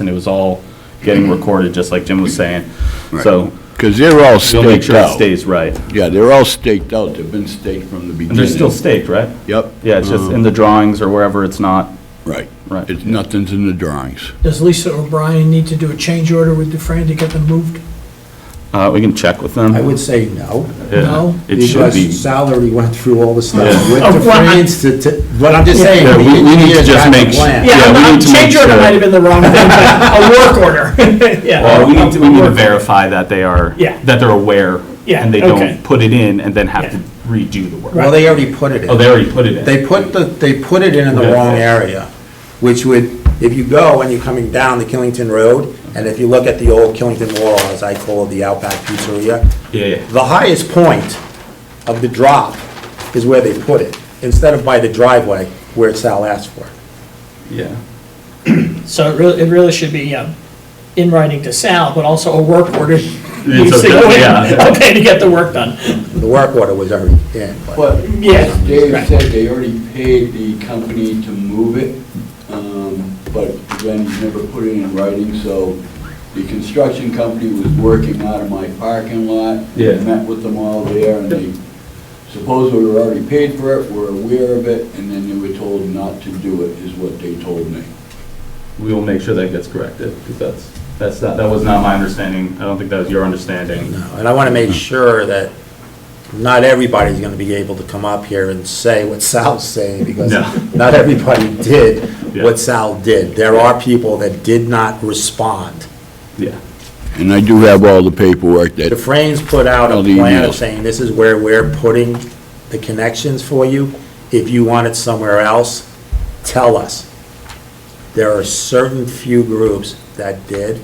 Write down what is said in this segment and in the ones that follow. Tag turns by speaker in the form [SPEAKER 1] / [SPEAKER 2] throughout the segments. [SPEAKER 1] and it was all
[SPEAKER 2] Mm-hmm.
[SPEAKER 1] getting recorded, just like Jim was saying. So
[SPEAKER 3] Because they're all
[SPEAKER 1] we'll make
[SPEAKER 3] staked
[SPEAKER 1] sure it
[SPEAKER 3] out.
[SPEAKER 1] stays right.
[SPEAKER 3] Yeah, they're all staked out, they've been staked from the beginning.
[SPEAKER 1] And they're still staked, right?
[SPEAKER 3] Yep.
[SPEAKER 1] Yeah, it's
[SPEAKER 2] Uh-huh.
[SPEAKER 1] just in the drawings or wherever it's not.
[SPEAKER 3] Right.
[SPEAKER 1] Right.
[SPEAKER 3] It's, nothing's in the drawings.
[SPEAKER 4] Does Lisa O'Brien need to do a change order with Dufresne to get them moved?
[SPEAKER 1] Uh, we can check with them.
[SPEAKER 2] I would say no,
[SPEAKER 1] Yeah,
[SPEAKER 4] No.
[SPEAKER 1] It should be.
[SPEAKER 2] because Sal already went through all the stuff
[SPEAKER 1] Yeah.
[SPEAKER 2] with
[SPEAKER 4] Oh,
[SPEAKER 2] the
[SPEAKER 4] what?
[SPEAKER 2] France to, to, what I'm just saying.
[SPEAKER 1] Yeah,
[SPEAKER 2] the
[SPEAKER 1] we- we need to
[SPEAKER 2] engineers
[SPEAKER 1] just
[SPEAKER 2] have the
[SPEAKER 1] make su-
[SPEAKER 2] plan.
[SPEAKER 1] Yeah, we need to make
[SPEAKER 4] Change order
[SPEAKER 1] sure.
[SPEAKER 4] might have been the wrong thing, but a work order, yeah.
[SPEAKER 1] Well, we need to, we need
[SPEAKER 4] A
[SPEAKER 1] to
[SPEAKER 4] work order.
[SPEAKER 1] verify that they are,
[SPEAKER 4] Yeah.
[SPEAKER 1] that they're aware.
[SPEAKER 4] Yeah,
[SPEAKER 1] And they
[SPEAKER 4] okay.
[SPEAKER 1] don't put it in and then have
[SPEAKER 4] Yeah.
[SPEAKER 1] to redo the work.
[SPEAKER 2] Well, they already put it in.
[SPEAKER 1] Oh, they already put it in.
[SPEAKER 2] They put the, they put it in in the
[SPEAKER 1] Yeah.
[SPEAKER 2] wrong area, which would, if you go and you're coming down the Killington Road, and if you look at the old Killington Wall, as I call it, the Outback Pizzeria,
[SPEAKER 1] Yeah, yeah.
[SPEAKER 2] the highest point of the drop is where they put it, instead of by the driveway where Sal asked for it.
[SPEAKER 1] Yeah.
[SPEAKER 4] So it really, it really should be um, in writing to Sal, but also a work order.
[SPEAKER 1] It's okay, yeah.
[SPEAKER 4] Okay, to get the work done,
[SPEAKER 2] The work order was already in. but-
[SPEAKER 5] But
[SPEAKER 4] Yeah,
[SPEAKER 5] as Dave
[SPEAKER 4] right.
[SPEAKER 5] said, they already paid the company to move it, um, but again, he's never put it in writing, so the construction company was working out of my parking lot.
[SPEAKER 1] Yeah.
[SPEAKER 5] Met with them all there, and they supposedly were already paid for it, were aware of it, and then they were told not to do it, is what they told me.
[SPEAKER 1] We will make sure that gets corrected because that's, that's, not- that was not my understanding. I don't think that was your understanding.
[SPEAKER 2] And I want to make sure that not everybody's going to be able to come up here and say what Sal's saying, because
[SPEAKER 1] No.
[SPEAKER 2] not everybody did
[SPEAKER 1] Yeah.
[SPEAKER 2] what Sal did. There are people that did not respond.
[SPEAKER 1] Yeah.
[SPEAKER 3] And I do have all the paperwork
[SPEAKER 2] The
[SPEAKER 3] that,
[SPEAKER 2] Frames put out a
[SPEAKER 3] All the
[SPEAKER 2] plan
[SPEAKER 3] emails.
[SPEAKER 2] of saying, this is where we're putting the connections for you. If you want it somewhere else, tell us. There are certain few groups that did.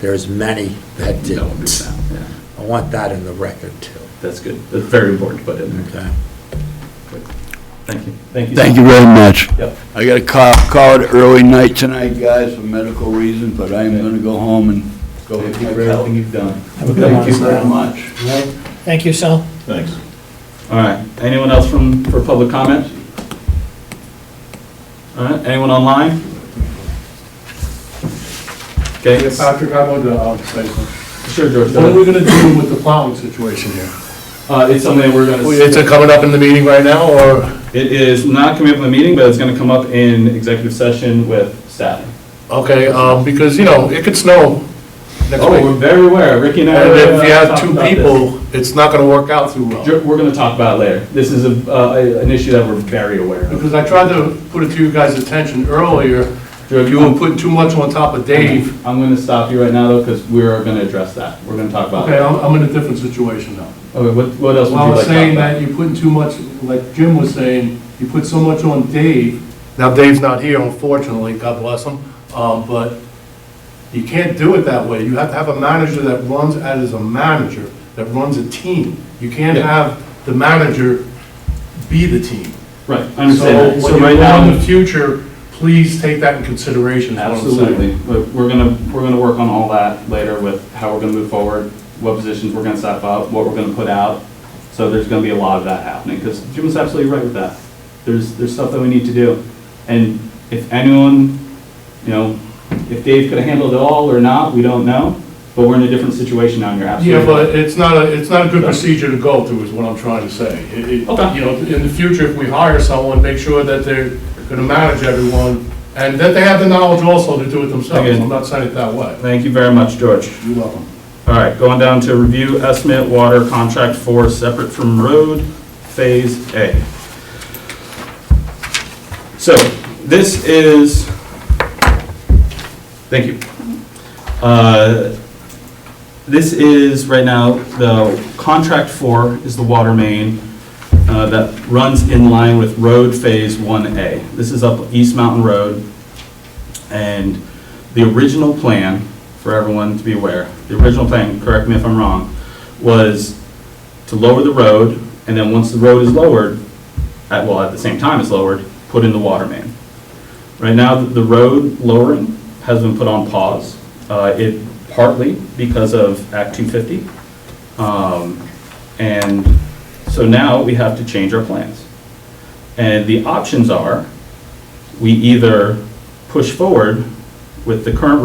[SPEAKER 2] There's many that
[SPEAKER 1] That will be
[SPEAKER 2] didn't.
[SPEAKER 1] found. Yeah.
[SPEAKER 2] I want that in the record, too.
[SPEAKER 1] That's good. That's very important to put in there.
[SPEAKER 2] Okay.
[SPEAKER 1] Thank you. Thank you.
[SPEAKER 3] thank you very much.
[SPEAKER 1] Yep.
[SPEAKER 3] I got a call, call it early night tonight.
[SPEAKER 5] Hey, guys, for medical reasons, but I am gonna go home and go
[SPEAKER 1] Thank
[SPEAKER 5] with
[SPEAKER 1] you
[SPEAKER 5] my
[SPEAKER 1] for
[SPEAKER 5] pal.
[SPEAKER 1] everything you've done.
[SPEAKER 5] Thank you very much.
[SPEAKER 4] thank you, Sal.
[SPEAKER 1] Thanks. All right, anyone else from, for public comment? All right, anyone online? Okay,
[SPEAKER 6] Yeah, Patrick, I wanted to uh, say something.
[SPEAKER 1] sure, George,
[SPEAKER 6] What are
[SPEAKER 1] go
[SPEAKER 6] we
[SPEAKER 1] ahead.
[SPEAKER 6] gonna do with the plowing situation here?
[SPEAKER 1] Uh, it's something that we're gonna,
[SPEAKER 6] Is it coming up in the meeting right now, or?
[SPEAKER 1] it is not coming up in the meeting, but it's gonna come up in executive session with staff.
[SPEAKER 6] Okay, um, because, you know, it could snow next
[SPEAKER 1] Oh, we're
[SPEAKER 6] week.
[SPEAKER 1] very aware, Ricky and I.
[SPEAKER 6] And
[SPEAKER 1] uh,
[SPEAKER 6] if you have
[SPEAKER 1] talked
[SPEAKER 6] two
[SPEAKER 1] about this.
[SPEAKER 6] people, it's not gonna work out too well.
[SPEAKER 1] Ju- We're gonna talk about it later. This is a, uh, a- an issue that we're very aware of.
[SPEAKER 6] Because I tried to put it to you guys' attention earlier,
[SPEAKER 1] George,
[SPEAKER 6] you were putting too much on top of Dave.
[SPEAKER 1] I'm gonna stop you right now though, because we're gonna address that. We're gonna talk about
[SPEAKER 6] Okay,
[SPEAKER 1] it.
[SPEAKER 6] I'm, I'm in a different situation now.
[SPEAKER 1] Okay, what, what else would you
[SPEAKER 6] Well, I
[SPEAKER 1] like to
[SPEAKER 6] was
[SPEAKER 1] talk
[SPEAKER 6] saying
[SPEAKER 1] about?
[SPEAKER 6] that you're putting too much, like Jim was saying, you put so much on Dave. Now, Dave's not here, unfortunately, God bless him, um, but you can't do it that way. You have to have a manager that runs as a manager, that runs a team. You can't
[SPEAKER 1] Yeah.
[SPEAKER 6] have the manager be the team.
[SPEAKER 1] Right, I
[SPEAKER 6] So
[SPEAKER 1] understand that. So
[SPEAKER 6] when
[SPEAKER 1] right
[SPEAKER 6] you go in the
[SPEAKER 1] now,
[SPEAKER 6] future, please take that in consideration, is what I'm saying.
[SPEAKER 1] absolutely, but we're gonna, we're gonna work on all that later with how we're gonna move forward, what positions we're gonna step up, what we're gonna put out. So there's gonna be a lot of that happening, because Jim was absolutely right with that. There's, there's stuff that we need to do. And if anyone, you know, if Dave could have handled it all or not, we don't know, but we're in a different situation now, and you're
[SPEAKER 6] Yeah,
[SPEAKER 1] absolutely right.
[SPEAKER 6] but it's not, a it's not a good procedure to go through, is what I'm trying to say. It- it-
[SPEAKER 1] Okay.
[SPEAKER 6] You know, in the future, if we hire someone, make sure that they're gonna manage everyone, and that they have the knowledge also to do it themselves.
[SPEAKER 1] Again.
[SPEAKER 6] I'm not saying it that way.
[SPEAKER 1] Thank you very much, George.
[SPEAKER 6] You love them.
[SPEAKER 1] All right, going down to review estimate water contract four, separate from road, phase A. So this is, thank you. Uh, This is right now, the contract four is the water main uh, that runs in line with road phase 1A. This is up East Mountain Road. And the original plan, for everyone to be aware, the original plan, correct me if I'm wrong, was to lower the road, and then once the road is lowered, at, well, at the same time it's lowered, put in the water main. Right now, the road lowering has been put on pause. Uh, It partly because of Act 250. Um, And so now we have to change our plans. And the options are, we either push forward with the current